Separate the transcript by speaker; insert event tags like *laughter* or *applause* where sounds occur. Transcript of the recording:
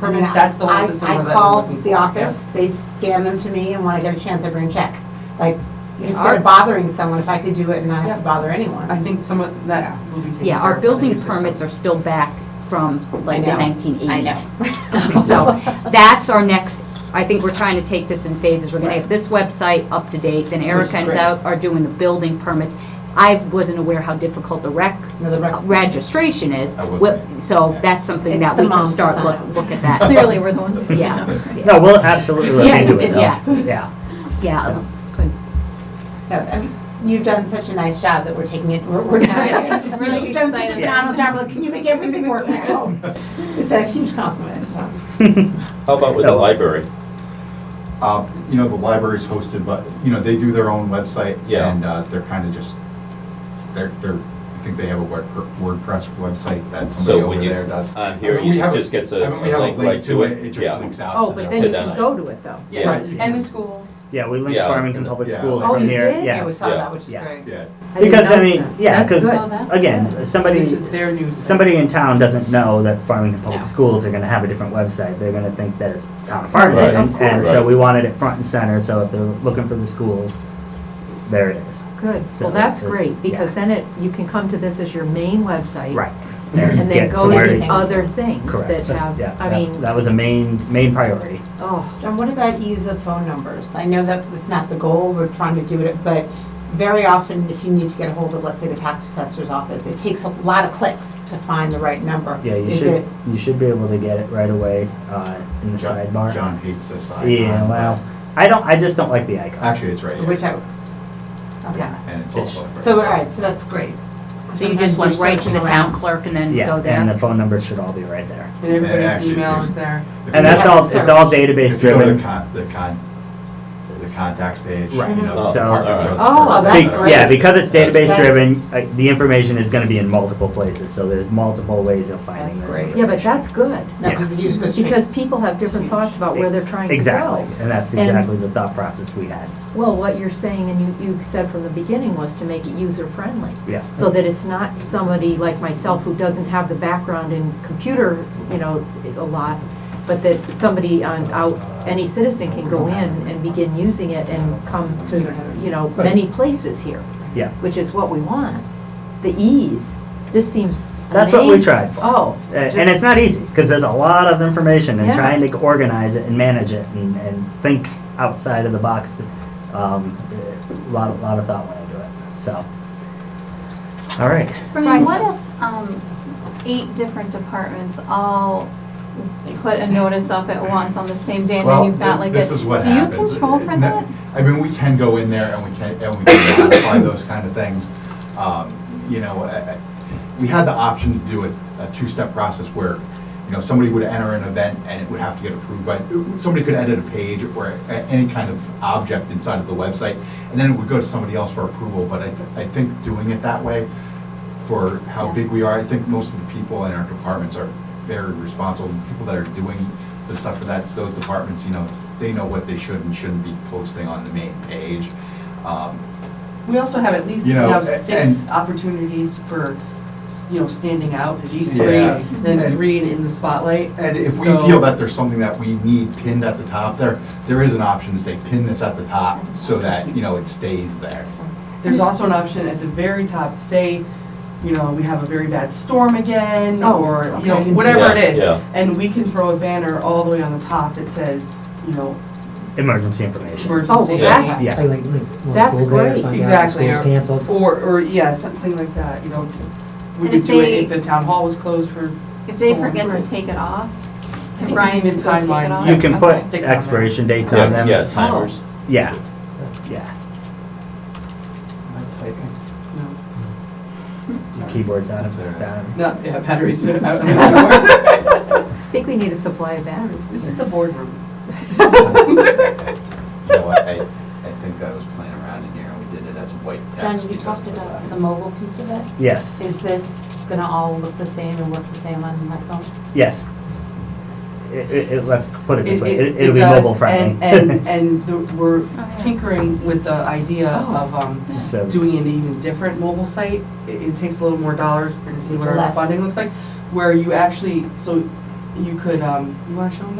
Speaker 1: permit,
Speaker 2: And I-
Speaker 1: that's the
Speaker 2: I-
Speaker 1: whole system we're looking
Speaker 2: I
Speaker 1: for.
Speaker 2: called the
Speaker 1: yeah.
Speaker 2: office, they scan them to me, and when I get a chance, I bring a check. Like,
Speaker 1: It's
Speaker 2: instead
Speaker 1: our-
Speaker 2: of bothering someone, if I could do it and not have
Speaker 1: Yeah.
Speaker 2: to bother
Speaker 1: I
Speaker 2: *laughs* anyone.
Speaker 1: think some of that will be taken
Speaker 3: Yeah,
Speaker 1: care
Speaker 3: our
Speaker 1: of by the
Speaker 3: building
Speaker 1: new system.
Speaker 3: permits are still back from like the
Speaker 1: know.
Speaker 3: nineteen eighties.
Speaker 4: I know.
Speaker 3: *laughs*
Speaker 2: *laughs*
Speaker 3: So that's our next, I think we're trying to take this in phases. We're gonna have this website up to date, then
Speaker 1: is
Speaker 3: Erica and
Speaker 1: great.
Speaker 3: Doug are doing the building permits. I wasn't aware how difficult the rec uh,
Speaker 1: No, the rec-
Speaker 3: *laughs* registration is.
Speaker 5: I wasn't
Speaker 3: What-
Speaker 5: either.
Speaker 3: So that's something
Speaker 2: It's
Speaker 3: that
Speaker 2: the
Speaker 3: we can
Speaker 2: moms who
Speaker 3: start
Speaker 2: sign
Speaker 3: look,
Speaker 2: up.
Speaker 3: look at that.
Speaker 6: Clearly, we're the ones who
Speaker 3: Yeah.
Speaker 6: stand up.
Speaker 3: Yeah,
Speaker 7: No, we'll absolutely look
Speaker 3: Yeah,
Speaker 7: into it, though.
Speaker 3: yeah.
Speaker 7: Yeah.
Speaker 3: yeah,
Speaker 7: So-
Speaker 3: good.
Speaker 2: No, I mean, You've done such a nice job that we're taking it, we're, we're
Speaker 6: Yeah.
Speaker 2: not.
Speaker 6: Really
Speaker 2: You've done such a
Speaker 6: excited.
Speaker 2: phenomenal job, like, can you make everything work *laughs* at home? It's a huge compliment.
Speaker 8: How about with the
Speaker 7: No.
Speaker 8: library?
Speaker 5: Uh, You know, the library's hosted, but, you know, they do their own website.
Speaker 8: Yeah.
Speaker 5: And uh, they're kind of just, they're, they're, I think they have a Word- WordPress website that somebody
Speaker 8: So when
Speaker 5: over
Speaker 8: you,
Speaker 5: there does.
Speaker 8: on Um, here,
Speaker 5: I mean, we
Speaker 8: you
Speaker 5: have a-
Speaker 8: just gets a
Speaker 5: I mean, we
Speaker 8: a
Speaker 5: have
Speaker 8: link right to it.
Speaker 5: It
Speaker 8: Yeah.
Speaker 5: just links out.
Speaker 9: Oh,
Speaker 5: to
Speaker 9: but
Speaker 5: their
Speaker 9: then
Speaker 8: To
Speaker 9: you
Speaker 8: that.
Speaker 9: can go to it, though.
Speaker 8: Yeah.
Speaker 5: Right.
Speaker 9: And the schools.
Speaker 7: Yeah, we linked
Speaker 8: Yeah.
Speaker 7: Farmington Public
Speaker 5: Yeah.
Speaker 7: Schools
Speaker 9: Oh,
Speaker 7: from
Speaker 9: you
Speaker 7: here,
Speaker 9: did?
Speaker 7: yeah.
Speaker 2: We saw
Speaker 8: Yeah.
Speaker 2: that, which is
Speaker 7: Yeah.
Speaker 2: great.
Speaker 5: Yeah.
Speaker 9: didn't
Speaker 7: Because, I
Speaker 9: notice
Speaker 7: mean,
Speaker 9: that.
Speaker 7: yeah,
Speaker 9: That's
Speaker 7: because,
Speaker 9: good. Oh, that's
Speaker 7: again,
Speaker 9: good.
Speaker 7: somebody,
Speaker 1: This is their news.
Speaker 7: somebody in town doesn't know that Farmington Public
Speaker 2: No.
Speaker 7: Schools are gonna have a different website. They're gonna think that it's town of Farmington.
Speaker 8: Right.
Speaker 7: and- And
Speaker 8: course.
Speaker 7: so we wanted it front and center, so if they're looking for the schools, there it is.
Speaker 9: Good,
Speaker 7: So
Speaker 9: well, that's
Speaker 7: it's-
Speaker 9: great, because then it, you can come to this as your main website.
Speaker 7: Right.
Speaker 9: And
Speaker 7: Get
Speaker 9: then
Speaker 7: to
Speaker 9: go
Speaker 7: where
Speaker 9: to
Speaker 7: it
Speaker 9: these
Speaker 7: is.
Speaker 9: other things that
Speaker 7: Correct.
Speaker 9: have,
Speaker 7: Yeah,
Speaker 9: I
Speaker 7: that-
Speaker 9: mean,
Speaker 7: That was a main, main priority.
Speaker 9: oh,
Speaker 2: John, what about ease of phone numbers? I know that it's not the goal, we're trying to do it, but very often, if you need to get a hold of, let's say, the tax assessor's office, it takes a lot of clicks to find the right number.
Speaker 7: Yeah, you
Speaker 2: Is
Speaker 7: should,
Speaker 2: it-
Speaker 7: you should be able to get it right away, uh, in the
Speaker 5: John-
Speaker 7: sidebar.
Speaker 5: John hates this icon.
Speaker 7: Yeah, Uh, well, I don't, I just don't like the icon.
Speaker 5: Actually, it's right
Speaker 2: Which
Speaker 5: here,
Speaker 2: I, okay.
Speaker 5: and it's
Speaker 7: It's-
Speaker 5: also. right
Speaker 2: So, all
Speaker 5: there.
Speaker 2: right, so that's great.
Speaker 3: So you just
Speaker 2: Sometimes we're
Speaker 3: went right to the
Speaker 2: searching
Speaker 3: town
Speaker 2: around.
Speaker 3: clerk and then
Speaker 7: Yeah,
Speaker 3: go there?
Speaker 7: and the phone numbers should all be right there.
Speaker 1: And everybody's
Speaker 5: Actually,
Speaker 1: email
Speaker 5: yeah.
Speaker 1: is there.
Speaker 5: If you
Speaker 7: And that's
Speaker 5: go-
Speaker 7: all, it's all database
Speaker 5: If you go to the
Speaker 7: driven.
Speaker 5: con, the con, the contacts page, you
Speaker 7: Right.
Speaker 5: know.
Speaker 8: Mhm.
Speaker 5: the
Speaker 7: So-
Speaker 5: department store, the
Speaker 2: Oh,
Speaker 5: first
Speaker 2: well,
Speaker 5: thing
Speaker 7: Be-
Speaker 2: that's
Speaker 5: there.
Speaker 2: great.
Speaker 7: Yeah, because it's
Speaker 8: That's-
Speaker 7: database
Speaker 2: That's-
Speaker 7: driven, uh, the information is gonna be in multiple places, so there's multiple ways of finding
Speaker 1: That's
Speaker 7: this
Speaker 1: great.
Speaker 7: information.
Speaker 9: yeah, but that's good,
Speaker 2: No, because it's usually
Speaker 9: because people have different thoughts about where they're trying to go.
Speaker 7: Exactly, and that's
Speaker 9: And-
Speaker 7: exactly the thought process we had,
Speaker 9: Well, what you're saying, and you, you said from the beginning, was to make it user-friendly.
Speaker 7: yeah.
Speaker 9: So that it's not somebody like myself who doesn't have the background in computer, you know, a lot, but that somebody on, out, any citizen can go in and begin using it and come to, you know, many places here.
Speaker 7: Yeah.
Speaker 9: Which is what we want, the ease. This seems
Speaker 7: That's what we
Speaker 9: amazing.
Speaker 7: tried for.
Speaker 9: Oh.
Speaker 7: A- And
Speaker 9: just-
Speaker 7: it's not easy, because there's a lot of information and
Speaker 9: Yeah.
Speaker 7: trying to organize it and manage it and, and think outside of the box. Um, a lot, lot of thought went into it, so. All right,
Speaker 6: Right.
Speaker 10: Brian, what if um, s- eight different departments all put a notice up at once on the same day, and then
Speaker 5: Well,
Speaker 10: you've got
Speaker 5: th-
Speaker 10: like a...
Speaker 5: this is what
Speaker 10: Do you
Speaker 5: happens.
Speaker 10: control for
Speaker 5: N-
Speaker 10: that?
Speaker 5: I mean, we can go in there and we can, and we can modify those kind of things. Um, You know, I- I- we had the option to do a, a two-step process where, you know, somebody would enter an event and it would have to get approved by, somebody could edit a page or a- any kind of object inside of the website, and then it would go to somebody else for approval, but I, th- I think doing it that way for how big we are. I think most of the people in our departments are very responsible. The People that are doing the stuff for that, those departments, you know, they know what they should and shouldn't be posting on the main page. Um,
Speaker 9: We also have at least
Speaker 5: You
Speaker 1: We
Speaker 5: know,
Speaker 1: have
Speaker 5: a-
Speaker 1: six
Speaker 5: and-
Speaker 1: opportunities for, you know, standing out, these three,
Speaker 5: Yeah.
Speaker 1: then
Speaker 5: And-
Speaker 1: three in the spotlight.
Speaker 5: And if we
Speaker 1: So-
Speaker 5: feel that there's something that we need pinned at the top there, there is an option to say pin this at the top so that, you know, it stays there.
Speaker 1: There's also an option at the very top, say, you know, we have a very bad storm again,
Speaker 9: Oh,
Speaker 1: or, you know,
Speaker 2: okay.
Speaker 1: whatever it
Speaker 8: Yeah,
Speaker 1: is.
Speaker 8: yeah.
Speaker 1: And we can throw a banner all the way on the top that says, you know,
Speaker 7: emergency information.
Speaker 9: Oh,
Speaker 1: emergency.
Speaker 9: well,
Speaker 8: Yeah.
Speaker 9: that's,
Speaker 7: Yeah.
Speaker 11: Like, like, well,
Speaker 9: That's
Speaker 11: school day or
Speaker 9: great.
Speaker 11: something, yeah,
Speaker 1: Exactly,
Speaker 11: school's
Speaker 1: or,
Speaker 11: canceled.
Speaker 1: or, or, yeah, something like that, you know, we
Speaker 10: And
Speaker 1: could
Speaker 10: if
Speaker 1: do
Speaker 10: they-
Speaker 1: it if the town hall was closed for.
Speaker 10: If they
Speaker 1: storm.
Speaker 10: forget to
Speaker 1: Right.
Speaker 10: take it off,
Speaker 1: Can
Speaker 10: can Brian
Speaker 1: you
Speaker 10: just go take it
Speaker 1: timelines?
Speaker 10: off?
Speaker 7: You can put
Speaker 1: Stick on there.
Speaker 7: expiration dates on
Speaker 8: Yeah,
Speaker 7: them.
Speaker 8: yeah, timers.
Speaker 7: Yeah, yeah,
Speaker 1: No.
Speaker 7: Your keyboard's out
Speaker 5: That's all right.
Speaker 7: of, down.
Speaker 1: No, yeah,
Speaker 7: *laughs*
Speaker 1: batteries are *laughs* out anymore.
Speaker 9: I think we need a supply of batteries.
Speaker 1: This is the boardroom.
Speaker 5: You know what, I, I think I was playing around in here and we did it as white text.
Speaker 2: John, you
Speaker 5: because
Speaker 2: talked
Speaker 5: of
Speaker 2: about
Speaker 5: that.
Speaker 2: the mobile piece of it.
Speaker 7: Yes,
Speaker 2: Is this gonna all look the same and work the same on my phone?
Speaker 7: yes. It, it, it- let's put it this way,
Speaker 1: It- it-
Speaker 7: it- it'll
Speaker 1: it
Speaker 7: be
Speaker 1: does,
Speaker 7: mobile friendly.
Speaker 1: And, and, and the- we're
Speaker 10: yeah.
Speaker 1: tinkering with the idea
Speaker 9: Oh.
Speaker 1: of, um,
Speaker 7: *laughs* So,
Speaker 1: doing an even different mobile site. It, it takes a little more dollars, we're gonna see what our
Speaker 2: Less.
Speaker 1: funding looks like, where you actually, so you could, um, you wanna show them